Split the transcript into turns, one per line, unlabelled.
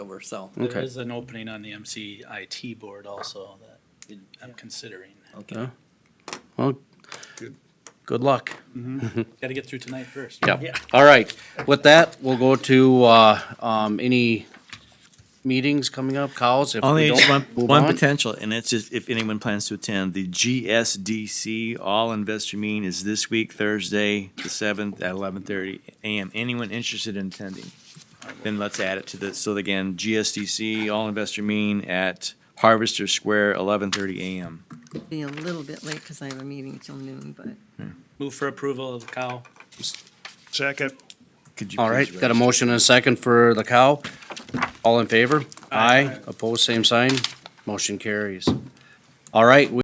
over, so,
There
Okay.
is an opening on the MCIT board also that I'm considering.
okay.
Well, good luck.
Gotta get through tonight first.
Yeah. All right. With that, we'll go to, uh, um, any meetings coming up, cows? If we
Only
don't,
one,
move
one
on.
potential, and it's just if anyone plans to attend, the GSDC All Investor Meeting is this week, Thursday, the seventh, at eleven thirty AM. Anyone interested in attending? Then let's add it to this. So again, GSDC All Investor Meeting at Harvester Square, eleven thirty AM.
Be a little bit late because I have a meeting till noon, but
Move for approval of cow.
Second.
Could you
All
please
right, got a
raise-
motion and a second for the cow. All in favor? Aye. Opposed, same sign. Motion carries. All right, we